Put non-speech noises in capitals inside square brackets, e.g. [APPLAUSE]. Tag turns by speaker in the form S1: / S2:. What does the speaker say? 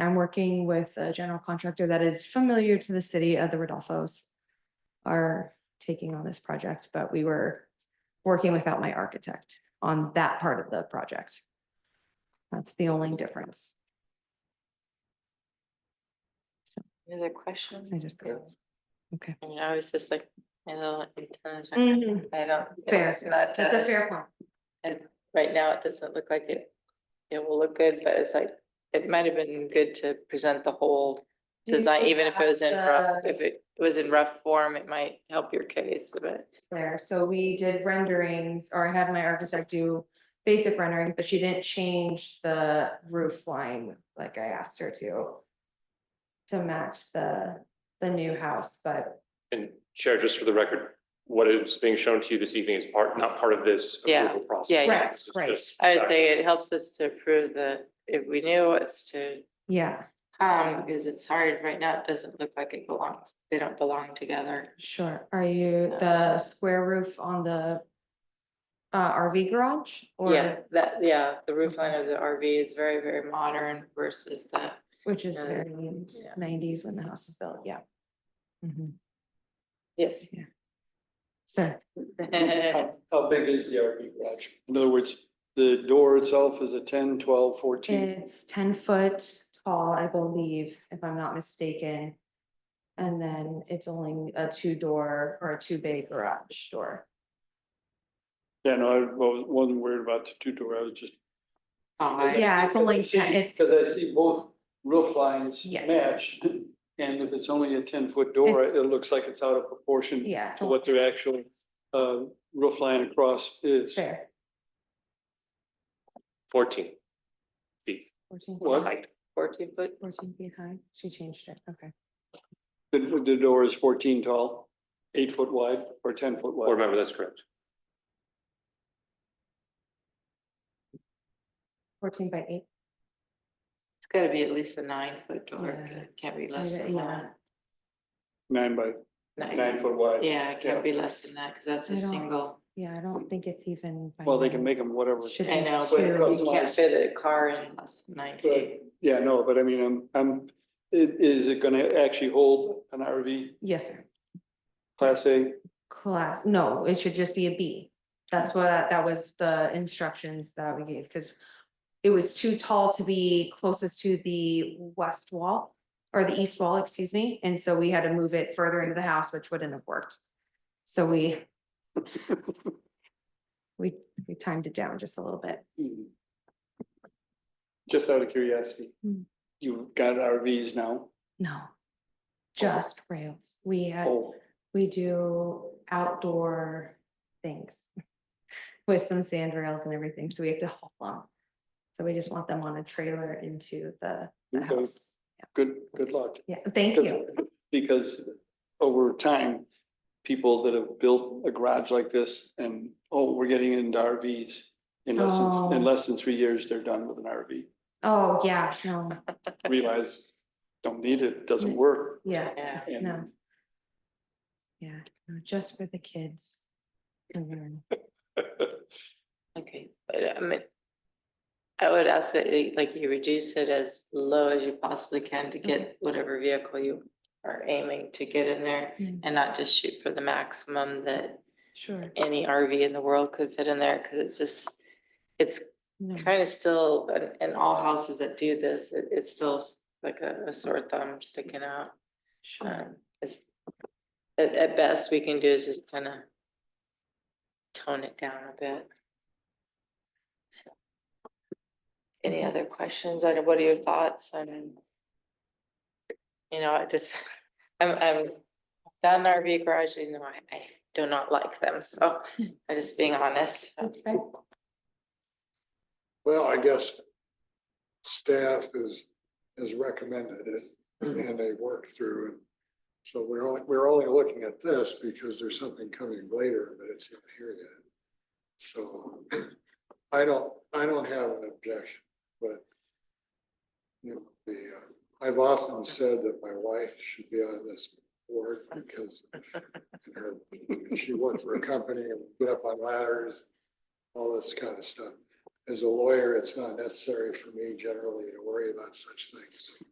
S1: I'm working with a general contractor that is familiar to the city of the Rodolfo's. Are taking on this project, but we were working without my architect on that part of the project. That's the only difference.
S2: Any other questions?
S1: I just-
S2: It's-
S1: Okay.
S2: I mean, I was just like, you know, it kinda-
S1: Mhm.
S2: I don't.
S1: Fair.
S2: it's not,
S1: That's a
S2: uh,
S1: fair point.
S2: And right now, it doesn't look like it, it will look good, but it's like, it might have been good to present the whole
S1: Do you
S2: design, even if it was in
S1: have
S2: rough,
S1: the-
S2: if it was in rough form, it might help your case, but.
S1: There, so we did renderings, or I had my architect do basic renderings, but she didn't change the roof line like I asked her to. To match the, the new house, but
S3: And Chair, just for the record, what is being shown to you this evening is part, not part of this
S2: Yeah,
S3: approval process.
S2: yeah, yeah.
S1: Right,
S3: This is
S1: right.
S3: just-
S2: I would think it helps us to approve the, if we knew what's to
S1: yeah, Um,
S2: come, because it's hard right now, it doesn't look like it belongs, they don't belong together.
S1: sure. Are you the square roof on the? Uh, RV garage
S2: Yeah,
S1: or,
S2: that, yeah, the roof line of the RV is very, very modern versus the,
S1: which is
S2: Yeah.
S1: very
S2: Yeah.
S1: nineties when the house was built, yeah.
S4: Mm-hmm.
S1: Mhm.
S2: yes.
S1: Sir,
S4: How how big is the RV garage? In other words, the door itself is a 10, 12, 14.
S1: it's ten foot tall, I believe, if I'm not mistaken. And then it's only a two door or a two bay garage door.
S4: Yeah, no, I wa- wasn't worried about the two door, I was just.
S2: Oh, I-
S1: Yeah, it's only
S4: Because I
S1: 10,
S4: see-
S1: it's-
S4: Cause I see both roof lines
S1: Yeah.
S4: matched, and if it's only a ten foot door,
S1: It's-
S4: it looks like it's out of proportion.
S1: Yeah,
S4: To what their actual, uh, roof line across is.
S1: fair.
S3: Fourteen feet.
S1: 14
S4: What?
S3: height.
S2: fourteen foot,
S1: Fourteen feet high, she changed it, okay.
S4: The, the door is fourteen tall, eight foot wide or ten foot
S3: Board
S4: wide.
S3: member, that's correct. [LAUGHS]
S1: Fourteen by eight.
S2: it's gotta be at least a nine foot door,
S1: Yeah.
S2: It can't be less
S1: Yeah,
S2: than
S1: yeah.
S2: that.
S4: Nine by, nine
S2: Nine,
S4: foot wide.
S2: yeah, it
S4: yeah.
S2: can't be less than that, cause that's
S1: I
S2: a
S1: don't-
S2: single,
S1: Yeah, I don't think it's even. by
S4: Well, they
S1: nine.
S4: can make them whatever.
S1: Should
S2: I
S1: be
S2: know,
S1: two.
S2: but you can't
S4: Customized.
S2: fit a car in less than nine feet.
S4: Right. Yeah, no, but I mean, I'm, I'm, i- is it gonna actually hold an RV
S1: Yes, sir.
S4: class A? [LAUGHS]
S1: Class, no, it should just be a B. That's what, that was the instructions that we gave, because it was too tall to be closest to the west wall or the east wall, excuse me, and so we had to move it further into the house, which wouldn't have worked. So we we, we timed it down just a little bit.
S4: Just out of curiosity,
S1: Hmm.
S4: you've got RVs now?
S1: No, just rails. We had,
S4: Oh,
S1: we do outdoor things [LAUGHS] with some sand rails and everything, so we have to haul them. So we just want them on a trailer into the the
S4: Okay.
S1: house.
S4: good, good luck.
S1: Yeah, thank you.
S4: Because- Because over time, people that have built a garage like this and, oh, we're getting into RVs. In less
S1: Oh.
S4: than, in less than three years, they're done with an RV.
S1: Oh, yeah, no,
S4: Realize, don't need it, doesn't work.
S1: yeah,
S2: Yeah,
S4: and-
S1: no. Yeah, no, just for the kids. to learn.
S2: okay, but I mean. I would ask that you- like you reduce it as low as you possibly can to get whatever vehicle you are aiming to get in there.
S1: Mm,
S2: And not just shoot for the maximum that
S1: Sure.
S2: any RV in the world could fit in there, cause it's just. It's
S1: no,
S2: kind of still, and, and all houses that do this, it, it's still s- like a, a sore thumb sticking out. [LAUGHS]
S1: Sure.
S2: Um, it's, at, at best, we can do is just kind of tone it down a bit. So, Any other questions? I don't- what are your thoughts? I mean, you know, I just, [LAUGHS] I'm, I'm down in RV garage, you know, I, I do not like them, so I'm just being honest. so.
S1: Hmm. That's fine.
S5: Well, I guess staff is, is recommended it
S2: Mhm.
S5: and they worked through it. So we're only, we're only looking at this because there's something coming later, but it's not here yet. So I don't, I don't have an objection, but you know, the, uh, I've often said that my wife should be on this board because in her, she worked for a company and get up on ladders, all this kind of stuff as a lawyer, it's not necessary for me generally to worry about such things.